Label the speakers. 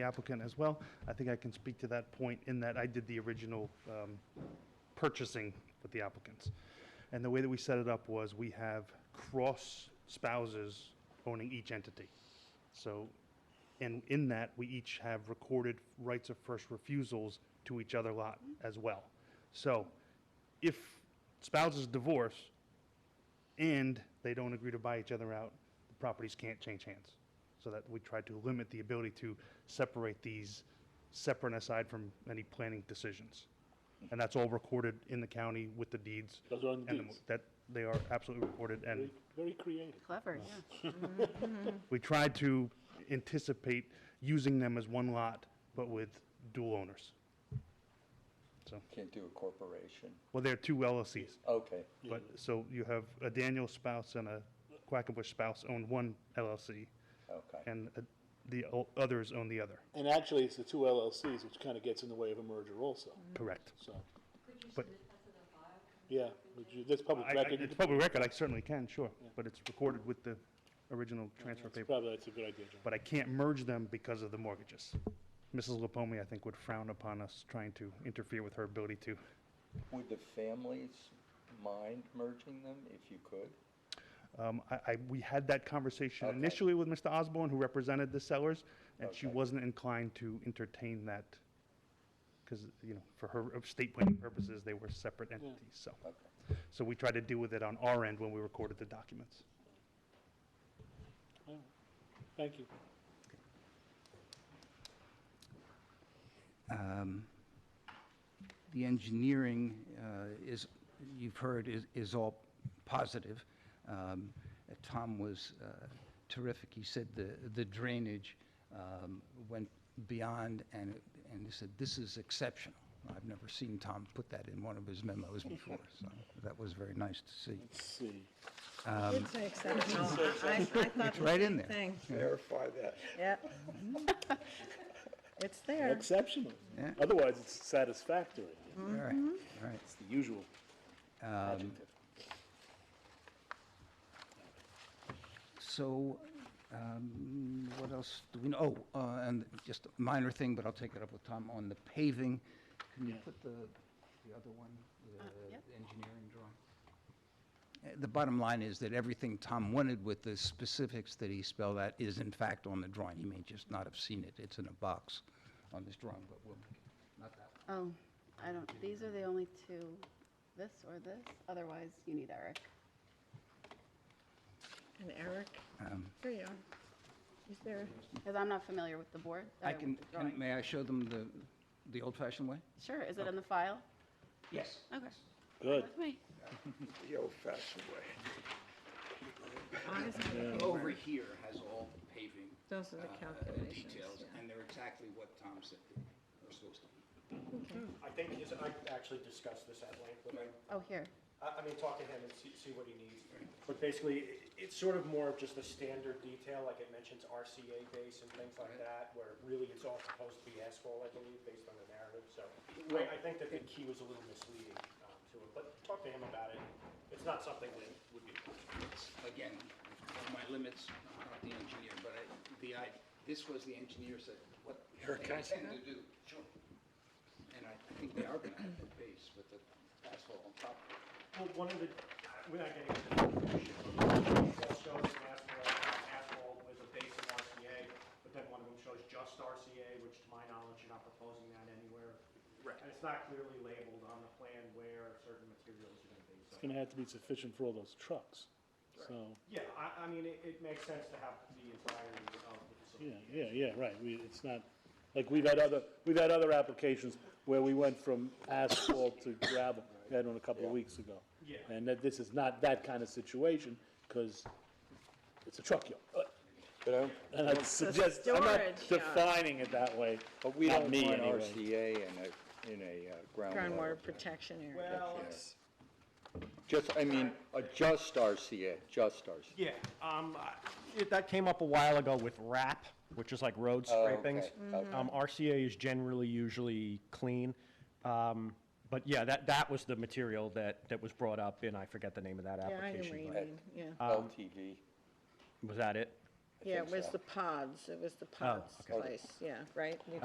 Speaker 1: the applicant as well. I think I can speak to that point in that I did the original um, purchasing with the applicants. And the way that we set it up was we have cross spouses owning each entity. So, and in that, we each have recorded rights of first refusals to each other lot as well. So if spouses divorce and they don't agree to buy each other out, the properties can't change hands. So that we try to limit the ability to separate these separate and aside from any planning decisions. And that's all recorded in the county with the deeds.
Speaker 2: Those are on the
Speaker 1: and the
Speaker 2: deeds.
Speaker 1: mo- That, they are absolutely recorded and
Speaker 2: Very- Very creative.
Speaker 3: Clever, yeah.
Speaker 1: we tried to anticipate using them as one lot, but with dual owners. So,
Speaker 4: Can't do a corporation.
Speaker 1: well, they're two LLCs,
Speaker 4: Okay,
Speaker 1: but, so you have a Daniel spouse and a Quackenbush spouse own one LLC,
Speaker 4: okay.
Speaker 1: and uh, the o- others own the other,
Speaker 2: And actually, it's the two LLCs, which kind of gets in the way of a merger also,
Speaker 1: correct.
Speaker 2: so,
Speaker 5: Could you
Speaker 1: But-
Speaker 5: submit that to the file?
Speaker 2: yeah, which you- that's public
Speaker 1: I- I-
Speaker 2: record.
Speaker 1: It's public record, I certainly can, sure, but it's recorded with the original transfer
Speaker 2: That's
Speaker 1: paper.
Speaker 2: Probably, that's a good idea, John.
Speaker 1: But I can't merge them because of the mortgages. Mrs. Lapome, I think, would frown upon us trying to interfere with her ability to
Speaker 4: Would the families mind merging them if you could?
Speaker 1: Um, I, I, we had that conversation
Speaker 4: Okay.
Speaker 1: initially with Mr. Osborne, who represented the sellers, and she
Speaker 4: Okay.
Speaker 1: wasn't inclined to entertain that because, you know, for her estate planning purposes, they were separate entities, so.
Speaker 4: Okay.
Speaker 1: So we tried to deal with it on our end when we recorded the documents.
Speaker 2: All right. Thank you.
Speaker 6: Um, The engineering uh, is, you've heard, is- is all positive. Um, uh, Tom was uh, terrific. He said the the drainage um, went beyond, and it- and he said, this is exceptional. I've never seen Tom put that in one of his memos before, so that was very nice to see.
Speaker 2: Let's see.
Speaker 7: It's an exceptional. I I thought
Speaker 6: It's
Speaker 7: the
Speaker 6: right in
Speaker 7: same
Speaker 6: there.
Speaker 7: thing.
Speaker 4: Verify that.
Speaker 7: Yeah. It's there.
Speaker 2: Exceptional.
Speaker 6: Yeah.
Speaker 2: Otherwise, it's satisfactory.
Speaker 6: All right, all right.
Speaker 2: It's the usual adjective.
Speaker 6: So, um, what else do we know? Oh, uh, and just a minor thing, but I'll take it up with Tom, on the paving, can you put the, the other one, the
Speaker 3: yep.
Speaker 6: engineering drawing? Uh, The bottom line is that everything Tom wanted with the specifics that he spelled out is in fact on the drawing. He may just not have seen it, it's in a box on this drawing, but we'll, not that one.
Speaker 3: Oh, I don't, these are the only two, this or this, otherwise you need Eric.
Speaker 7: And Eric,
Speaker 6: Um,
Speaker 7: there you are. He's there.
Speaker 3: Because I'm not familiar with the board. uh,
Speaker 6: I
Speaker 3: with
Speaker 6: can,
Speaker 3: the
Speaker 6: can-
Speaker 3: drawing.
Speaker 6: may I show them the, the old-fashioned way?
Speaker 3: Sure, is it in the file?
Speaker 6: Yes.
Speaker 3: Okay.
Speaker 2: Good.
Speaker 3: With me.
Speaker 4: The old-fashioned way.
Speaker 6: Over here has all the paving
Speaker 7: Those are
Speaker 6: uh,
Speaker 7: the calculations.
Speaker 6: details, and they're exactly what Tom said we're supposed to.
Speaker 8: I think, is, I actually discussed this at length, but I,
Speaker 3: Oh, here.
Speaker 8: I mean, talk to him and see, see what he needs. But basically, i- it's sort of more of just the standard detail, like it mentions RCA base and things like that, where really it's all supposed to be asphalt, I believe, based on the narrative, so. I, I think that the key was a little misleading, um, to it, but talk to him about it. It's not something that would be.
Speaker 6: Again, on my limits, I'm not the engineer, but I, the, I, this was the engineer said, what they intend to do. Sure. And I I think they are gonna have the base with the asphalt on top.
Speaker 8: Well, one of the, without getting into the definition, it shows an asphalt, asphalt with a base of RCA, but then one of them shows just RCA, which to my knowledge, you're not proposing that anywhere.
Speaker 6: Right.
Speaker 8: And it's not clearly labeled on the plan where certain materials are gonna be, so.
Speaker 2: It's going to have to be sufficient for all those trucks, so,
Speaker 8: Yeah, I, I mean, it, it makes sense to have the entirety of the
Speaker 2: yeah,
Speaker 8: facility.
Speaker 2: yeah, yeah, right, we, it's not, like, we've had other, we've had other applications where we went from asphalt to gravel, we had one a couple of weeks ago.
Speaker 8: Yeah.
Speaker 2: And that this is not that kind of situation, because it's a truck yard,
Speaker 4: But I'm,
Speaker 2: and I suggest, I'm not
Speaker 7: storage yard.
Speaker 2: defining it that way,
Speaker 4: but we
Speaker 2: Not
Speaker 4: don't
Speaker 2: me,
Speaker 4: want
Speaker 2: anyway.
Speaker 4: RCA in a, in a uh, groundwater.
Speaker 7: Groundwater protection area.
Speaker 8: Well,
Speaker 4: Yeah.
Speaker 8: it's-
Speaker 4: Just, I mean, uh, just RCA, just RCA.
Speaker 8: yeah, um, I- it, that came up a while ago with RAP, which is like road
Speaker 4: Oh, okay,
Speaker 8: scrapings.
Speaker 4: okay.
Speaker 8: Um, RCA is generally usually clean. Um, but yeah, that, that was the material that, that was brought up and I forget the name of that
Speaker 2: Um,
Speaker 7: Yeah, I know what you
Speaker 8: application.
Speaker 7: mean, yeah.
Speaker 4: LTV,
Speaker 8: but- Was that it?
Speaker 7: Yeah, it
Speaker 4: think
Speaker 7: was
Speaker 4: so.
Speaker 7: the pods, it was the pods
Speaker 6: okay. Oh,
Speaker 7: place, yeah, right? You